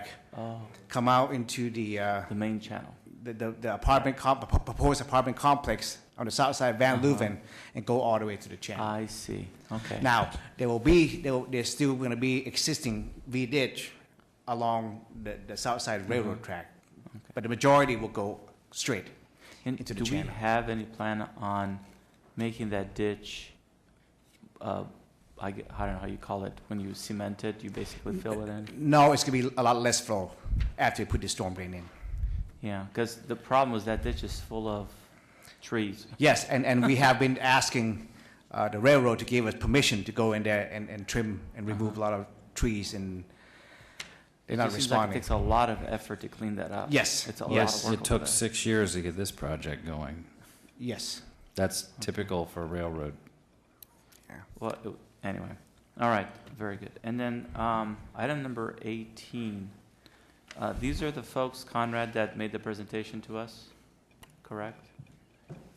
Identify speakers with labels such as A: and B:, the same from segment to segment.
A: back,
B: Oh,
A: come out into the, uh,
B: the main channel.
A: the- the the apartment, comp- p- proposed apartment complex on the south side of Van Leuven and go all the way to the channel.
B: I see. Okay.
A: Now, there will be, there will- there's still going to be existing V-ditch along the, the south side railroad track. But the majority will go straight.
B: And
A: into the
B: do we
A: channel.
B: have any plan on making that ditch? Uh, I, g- I don't know how you call it. When you cement it, you basically fill it in.
A: No, it's going to be a lot less flow after you put the storm drain in.
B: Yeah, because the problem was that ditch is full of trees.
A: Yes, and, and we have been asking uh, the railroad to give us permission to go in there and, and trim and remove a lot of trees and they're
B: It
A: not
B: seems like
A: responding.
B: It takes a lot of effort to clean that up.
A: Yes,
B: It's a lot of
C: Yes,
B: work
C: it
B: over
C: took
B: there.
C: six years to get this project going.
A: Yes.
C: That's typical for railroad.
B: Well, it- anyway, all right, very good. And then, um, item number eighteen, uh, these are the folks, Conrad, that made the presentation to us, correct?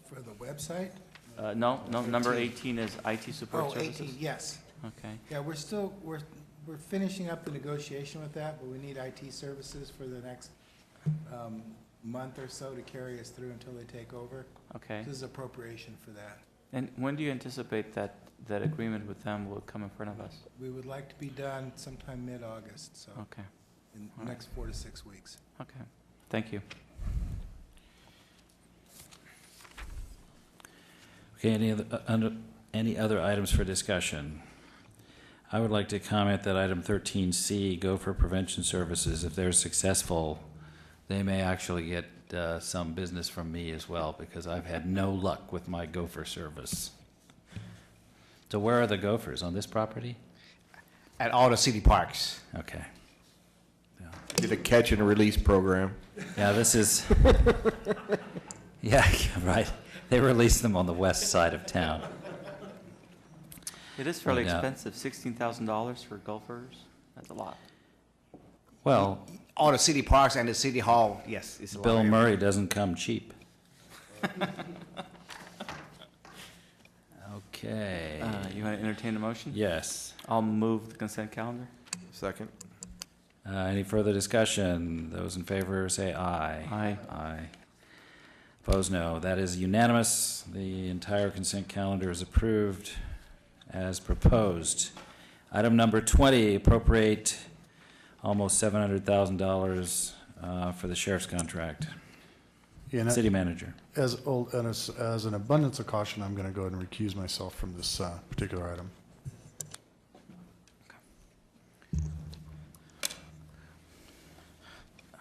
D: For the website?
B: Uh, no, no, number
D: 13.
B: eighteen is IT
D: Oh,
B: support
D: 18.
B: services.
D: yes.
B: Okay,
D: Yeah, we're still, we're, we're finishing up the negotiation with that, but we need IT services for the next um, month or so to carry us through until they take over.
B: okay.
D: This is appropriation for that.
B: And when do you anticipate that, that agreement with them will come in front of us?
D: We would like to be done sometime mid-August, so
B: Okay,
D: in
B: all
D: the
B: right.
D: next four to six weeks.
B: okay, thank you.
C: Okay, any other, uh, under, any other items for discussion? I would like to comment that item thirteen C, Gopher Prevention Services, if they're successful, they may actually get, uh, some business from me as well, because I've had no luck with my gopher service. So where are the gophers? On this property?
A: At all the city parks.
C: Okay.
E: Did a catch and release program.
C: Yeah, this is. yeah, right. They released them on the west side of town.
B: It is fairly
C: No doubt.
B: expensive, sixteen thousand dollars for golfers, that's a lot.
C: Well,
A: All the city parks and the city hall, yes. it's a lot
C: Bill
A: of-
C: Murray doesn't come cheap. Okay.
B: Uh, you want to entertain a motion?
C: Yes.
B: I'll move the consent calendar.
E: Second.
C: Uh, any further discussion? Those in favor say aye.
B: Aye.
C: Aye. Opposed, no. That is unanimous. The entire consent calendar is approved as proposed. Item number 20, appropriate almost $700,000 uh, for the sheriff's contract.
F: And
C: City manager.
F: as old, and as, as an abundance of caution, I'm going to go ahead and recuse myself from this uh, particular item.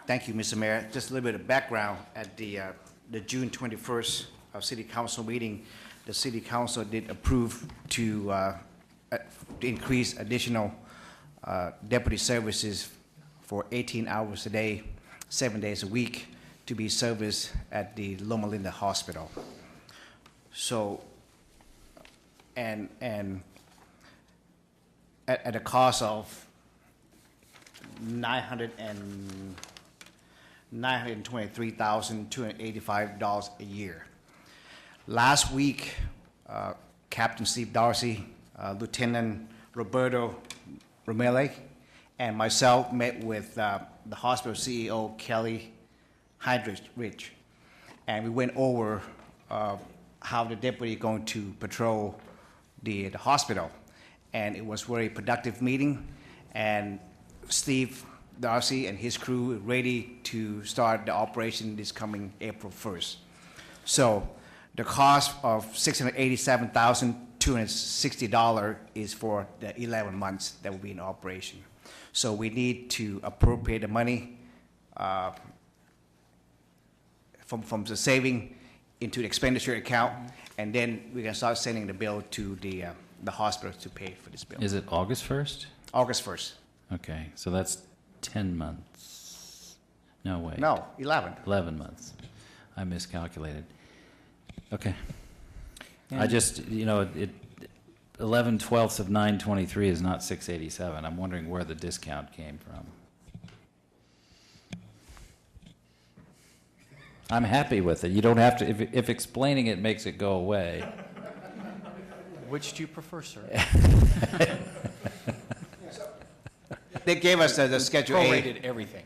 A: Thank you, Mr. Mayor. Just a little bit of background. At the, uh, the June 21st uh, City Council meeting, the City Council did approve to uh, uh, to increase additional uh, deputy services for 18 hours a day, seven days a week, to be serviced at the Loma Linda Hospital. So, and, and at, at a cost of 900 and nine hundred and twenty-three thousand two hundred and eighty-five dollars a year. Last week, uh, Captain Steve Darcy, uh, Lieutenant Roberto Romele, and myself met with uh, the hospital CEO Kelly Hydrich Rich, and we went over uh, how the deputy going to patrol the, the hospital, and it was very productive meeting, and Steve Darcy and his crew are ready to start the operation this coming April 1st. So the cost of $687,260 is for the 11 months that will be in operation. So we need to appropriate the money uh, from, from the saving into the expenditure account, and then we can start sending the bill to the, uh, the hospital to pay for this bill.
C: Is it August 1st?
A: August 1st.
C: Okay, so that's 10 months. No, wait.
A: No, 11.
C: 11 months. I miscalculated. Okay. I
B: And-
C: just, you know, it, 11 twelfths of 923 is not 687. I'm wondering where the discount came from. I'm happy with it. You don't have to, if, if explaining it makes it go away.
G: Which do you prefer, sir?
H: They gave us the the Schedule A.
A: Prorated everything.